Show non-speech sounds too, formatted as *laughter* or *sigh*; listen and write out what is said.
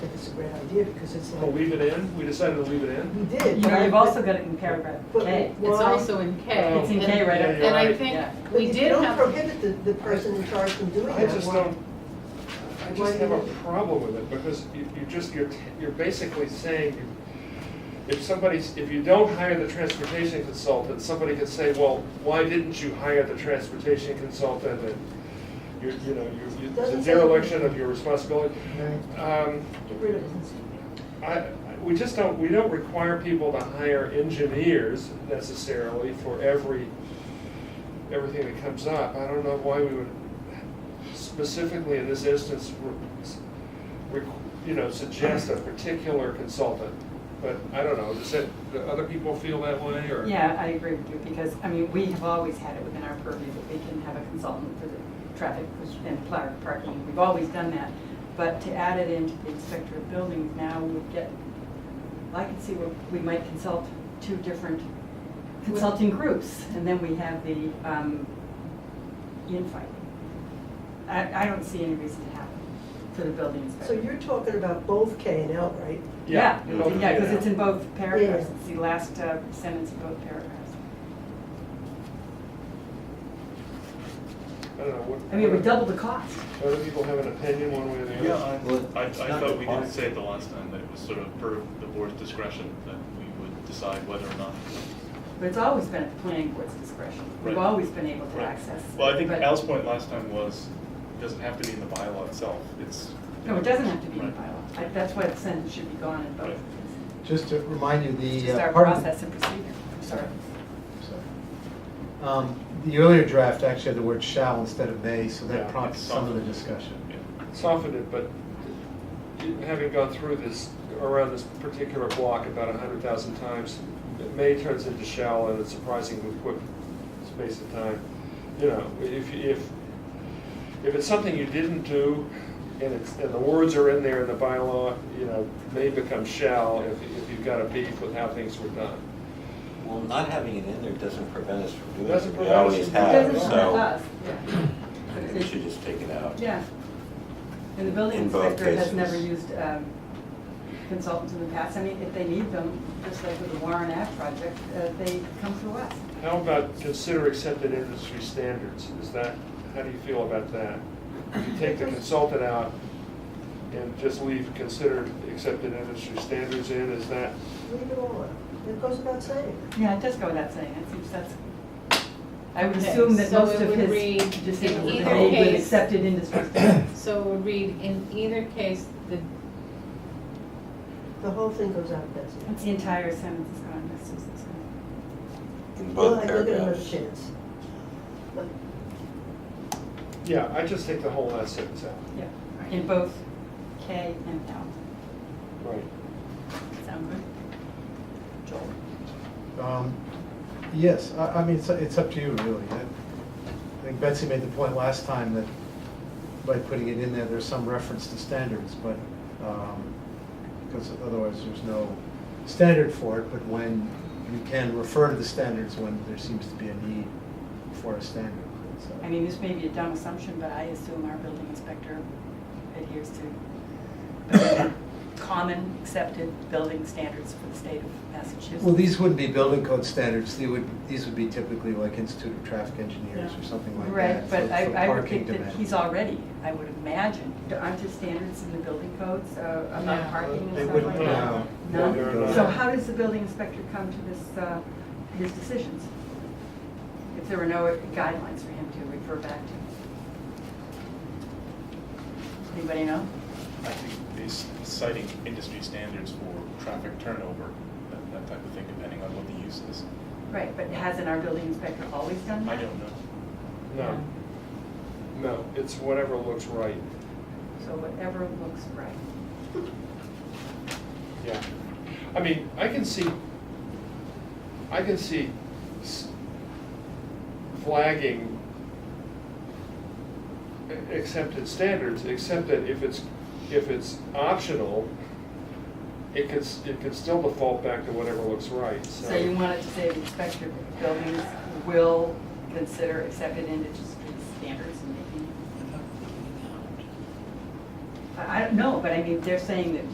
great idea, because it's Oh, like, leave it in? We decided to leave it in? we did. You know, but- you've also got it in paragraph but K. It's why- also in K. It's in and- K right Yeah, up you're And I right. think Yeah. but we if you did don't have, prohibit the, the person in charge from doing I that. just why- don't, I Why just have a not? problem with it, because you, you just, you're, t- you're basically saying, you- if somebody's, if you don't hire the transportation consultant, somebody could say, well, why didn't you hire the transportation consultant? And you, you know, you- you, it's a Doesn't say- dereliction of your responsibility. Um, Get rid of it. I, I- we just don't, we don't require people to hire engineers necessarily for every, everything that comes up. I don't know why we would specifically in this instance, re- re- you know, suggest a particular consultant. But I don't know, does it, do other people feel that way or? Yeah, I agree with you, because, I mean, we have always had it within our purview that we can have a consultant for the traffic and pla- parking. We've always done that. But to add it into the inspector of buildings now would get, I can see where we might consult two different consulting groups, and then we have the um, infighting. I, I don't see any reason to have it for the building So inspector. you're talking about both K and L, right? Yeah, you know, yeah, because yeah. it's in both paragraphs, Yeah. it's the last uh, sentence of both paragraphs. I don't know, what. I mean, we what- doubled the cost. Other people have an opinion one way or the other? Yeah, I, I, I I thought we did say say at the last time that it was sort of per the board's discretion that we would decide whether or not. But it's always been at the planning board's discretion. We've Right. always been able to Right. access. Well, I think but- Al's point last time was, it doesn't have to be in the bylaw itself, it's. No, it doesn't have to be in the Right. bylaw. I- That's why the sentence should be gone in both. Right. Just to remind you, It's the. just uh, our part of the- Uh, process and procedure. Sorry. sorry. Um, The earlier draft actually had the word shall instead of may, so Yeah, that it's prompts some of the something. discussion. Yeah. softened it, but having gone through this, around this particular block about a hundred thousand times, it may turns into shall in a surprisingly quick space of time. You know, if, if, if it's something you didn't do, and it's, and the words are in there in the bylaw, you know, may become shall if, if you've got a beef with how things were done. Well, not having it in there doesn't prevent us from doing it. Doesn't We prevent us always from It have, doesn't so affect us, yeah. I think we should just take it out. Yeah. And the building In both inspector has cases. never used um, consultants in the past. I mean, if they need them, just like with the Warren Ave project, uh, they come to us. How about consider accepted industry standards? Is that, how do you feel about that? If you take the consultant out and just leave considered accepted industry standards in, is that, Leave it all out. It goes without saying. Yeah, it does go without saying, it seems that's, I would Okay, assume that so most it of would read, his in decisions were either made with case- accepted *coughs* industry standards. so we'll read, in either case, the, The whole thing goes out, that's it. The entire sentence is gone, that's just, it's gone. In Well, both I give it another paragraphs. chance. yeah, I just take the whole last sentence out. yeah, in both K and L. Right. Sound good? Joel? Um, Yes, I, I mean, it's, it's up to you, really. I I think Betsy made the point last time that by putting it in there, there's some reference to standards, but, um, because otherwise there's no standard for it, but when you can refer to the standards when there seems to be a need for a standard. so. I mean, this may be a dumb assumption, but I assume our building inspector adheres to *coughs* common accepted building standards for the state of Massachusetts. Well, these wouldn't be building code standards, they would, these would be typically like Institute of Traffic Engineers or something like that. Right, but for- I, for I would parking think that demand. he's already, I would imagine, aren't there standards in the building codes uh, about No. parking and They stuff wouldn't, like that? no. No? They wouldn't. So how does the building inspector come to this, uh, his decisions? If there were no guidelines for him to refer back to? Anybody know? I think these citing industry standards for traffic turnover, that, that type of thing, depending on what the use is. Right, but hasn't our building inspector always done I that? don't know. No, no, it's whatever looks right, So whatever looks right. yeah. I mean, I can see, I can see s- flagging a- accepted standards, except that if it's, if it's optional, it could, s- it could still default back to whatever looks right, so. So you wanted to say the inspector of buildings will consider accepted industry standards and making. I I don't know, but I mean, they're saying that